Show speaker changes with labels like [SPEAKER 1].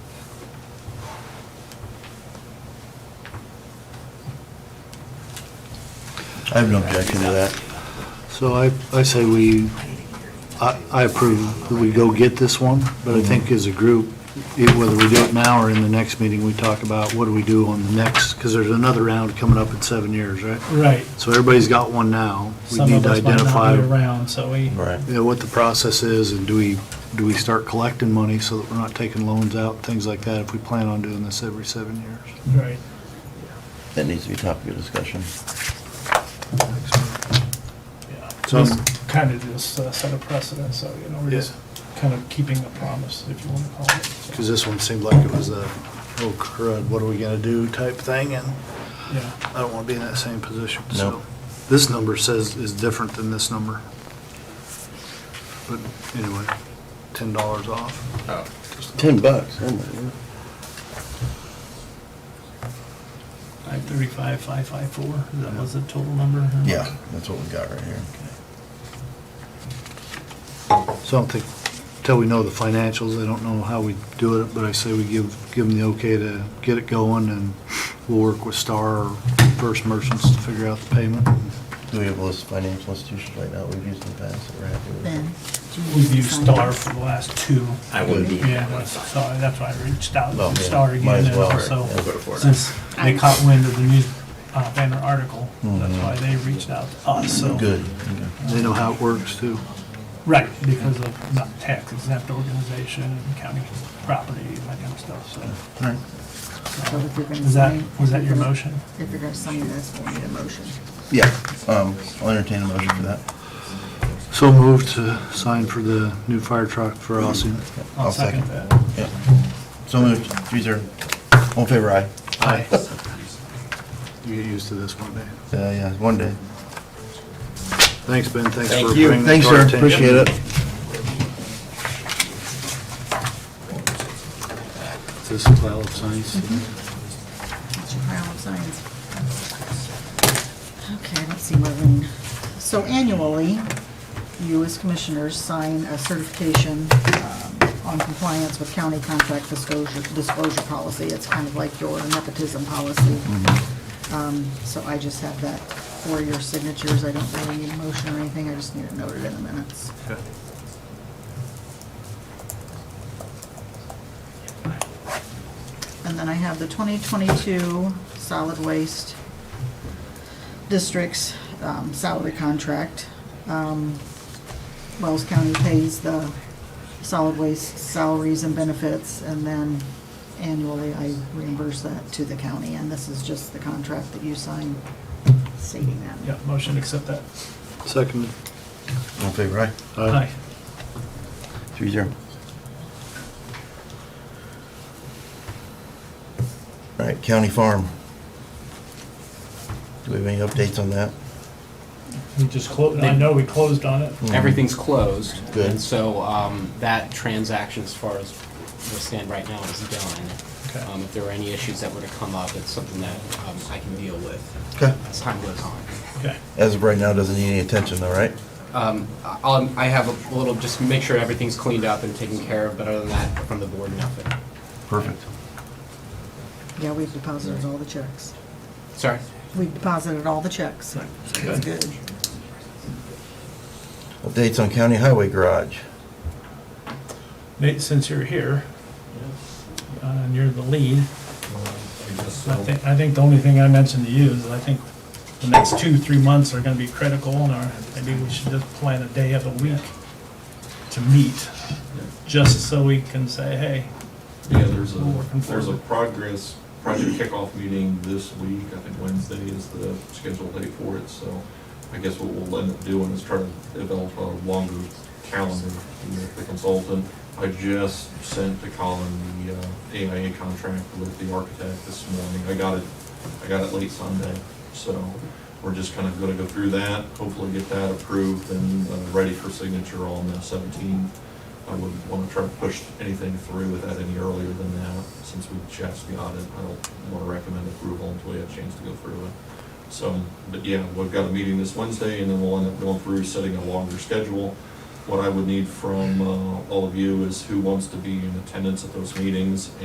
[SPEAKER 1] I have no objection to that. So I, I say we, I I approve that we go get this one, but I think as a group, e- whether we do it now or in the next meeting, we talk about what do we do on the next, because there's another round coming up in seven years, right?
[SPEAKER 2] Right.
[SPEAKER 1] So everybody's got one now. We
[SPEAKER 2] Some
[SPEAKER 1] need
[SPEAKER 2] of
[SPEAKER 1] to
[SPEAKER 2] us might
[SPEAKER 1] identify
[SPEAKER 2] not be around, so we,
[SPEAKER 3] Right.
[SPEAKER 1] you know, what the process is, and do we, do we start collecting money so that we're not taking loans out, things like that, if we plan on doing this every seven years.
[SPEAKER 2] right.
[SPEAKER 3] That needs to be topic of discussion.
[SPEAKER 2] yeah.
[SPEAKER 1] So-
[SPEAKER 2] Just Kind of just uh, set a precedent, so, you know, we're just kind of keeping a promise, if you want to call it. so,
[SPEAKER 1] Because this one seemed like it was a, oh crud, what are we gonna do type thing, and
[SPEAKER 2] Yeah,
[SPEAKER 1] I don't wanna be in that same position, so.
[SPEAKER 3] No.
[SPEAKER 1] This number says is different than this number. But anyway, ten dollars off.
[SPEAKER 3] Ten bucks, oh my word.
[SPEAKER 2] 535, 554, that was the total number? huh?
[SPEAKER 3] Yeah, that's what we got right here.
[SPEAKER 1] So I don't think, until we know the financials, I don't know how we do it, but I say we give, give them the okay to get it going, and we'll work with Star or First Merchants to figure out the payment.
[SPEAKER 3] Do we have those financial institutions right now we've used in the past that we're happy with?
[SPEAKER 4] Ben, do you
[SPEAKER 2] We've
[SPEAKER 4] need
[SPEAKER 2] used
[SPEAKER 4] to sign
[SPEAKER 2] Star
[SPEAKER 4] this?
[SPEAKER 2] for the last two.
[SPEAKER 5] I wouldn't be
[SPEAKER 2] Yeah,
[SPEAKER 5] here.
[SPEAKER 2] that's, sorry, that's why I reached out
[SPEAKER 3] Well,
[SPEAKER 2] to
[SPEAKER 3] yeah,
[SPEAKER 2] Star
[SPEAKER 3] might
[SPEAKER 2] again,
[SPEAKER 3] as
[SPEAKER 2] and
[SPEAKER 3] well,
[SPEAKER 2] also,
[SPEAKER 3] yeah.
[SPEAKER 5] Go to Florida.
[SPEAKER 2] since they caught wind of the news, uh, banner article, that's
[SPEAKER 3] Mhm.
[SPEAKER 2] why they reached out to us, so.
[SPEAKER 3] Good.
[SPEAKER 1] They know how it works, too.
[SPEAKER 2] Right, because of not tax exempt organization and county property and that kind of stuff, so.
[SPEAKER 3] All right.
[SPEAKER 4] So if you're gonna
[SPEAKER 2] Is that,
[SPEAKER 4] sign-
[SPEAKER 2] was that your motion?
[SPEAKER 4] If you're gonna sign this, we'll need a motion.
[SPEAKER 3] Yeah, um, I'll entertain a motion for that.
[SPEAKER 1] So moved to sign for the new fire truck for Austin.
[SPEAKER 2] I'll second that.
[SPEAKER 3] Yeah. So moved, three zero. All in favor, aye.
[SPEAKER 1] Aye. You get used to this one, day.
[SPEAKER 3] Uh, yeah, one day.
[SPEAKER 1] Thanks, Ben, thanks
[SPEAKER 5] Thank
[SPEAKER 1] for
[SPEAKER 5] you.
[SPEAKER 1] bringing this
[SPEAKER 3] Thanks,
[SPEAKER 1] to our
[SPEAKER 3] sir,
[SPEAKER 1] attention.
[SPEAKER 3] appreciate it.
[SPEAKER 1] This pile of signs.
[SPEAKER 4] That's your pile of signs. Okay, let's see, Marlene. So annually, you as commissioners sign a certification um, on compliance with county contract disclosure, disclosure policy. It's kind of like your nepotism policy.
[SPEAKER 2] Mm-hmm.
[SPEAKER 4] Um, So I just have that for your signatures. I don't really need a motion or anything. I just need it noted in the minutes. And then I have the 2022 solid waste district's um, salary contract. Um, Wells County pays the solid waste salaries and benefits, and then annually I reimburse that to the county. And this is just the contract that you sign stating that.
[SPEAKER 2] Yeah, motion to accept that.
[SPEAKER 1] Second.
[SPEAKER 3] All in favor, aye.
[SPEAKER 2] Aye.
[SPEAKER 3] Three zero. All right, county farm. Do we have any updates on that?
[SPEAKER 2] We just closed, I know we closed on it.
[SPEAKER 6] Everything's closed.
[SPEAKER 3] Mm-hmm. Good.
[SPEAKER 6] And so um, that transaction, as far as we stand right now, is done.
[SPEAKER 2] Okay.
[SPEAKER 6] Um, If there were any issues that were to come up, it's something that um, I can deal with
[SPEAKER 3] Okay.
[SPEAKER 6] as time goes on.
[SPEAKER 2] Okay.
[SPEAKER 3] As of right now, doesn't need any attention though, right?
[SPEAKER 6] Um, I- I'll- I have a little, just make sure everything's cleaned up and taken care of, but other than that, from the board, nothing.
[SPEAKER 3] Perfect.
[SPEAKER 4] Yeah, we've deposited all the checks.
[SPEAKER 6] Sorry?
[SPEAKER 4] We've deposited all the checks. so It's good.
[SPEAKER 3] Updates on county highway garage.
[SPEAKER 2] Nate, since you're here, uh, and you're the lead, I think, I think the only thing I mentioned to you is I think the next two, three months are gonna be critical, and our, maybe we should just plan a day of the week to meet, just so we can say, hey,
[SPEAKER 7] Yeah, there's
[SPEAKER 2] We're
[SPEAKER 7] a,
[SPEAKER 2] working
[SPEAKER 7] there's a
[SPEAKER 2] forward.
[SPEAKER 7] progress, project kickoff meeting this week, I think Wednesday is the scheduled date for it, so I guess what we'll end up doing is try to develop a longer calendar with the consultant. I just sent to Colin the uh, AIA contract with the architect this morning, I got it, I got it late Sunday, so we're just kind of gonna go through that, hopefully get that approved and uh, ready for signature on the seventeenth. I wouldn't want to try to push anything through with that any earlier than that, since we just got it. I don't want to recommend approval until we have a chance to go through it. So, but yeah, we've got a meeting this Wednesday, and then we'll end up going through setting a longer schedule. What I would need from uh, all of you is who wants to be in attendance at those meetings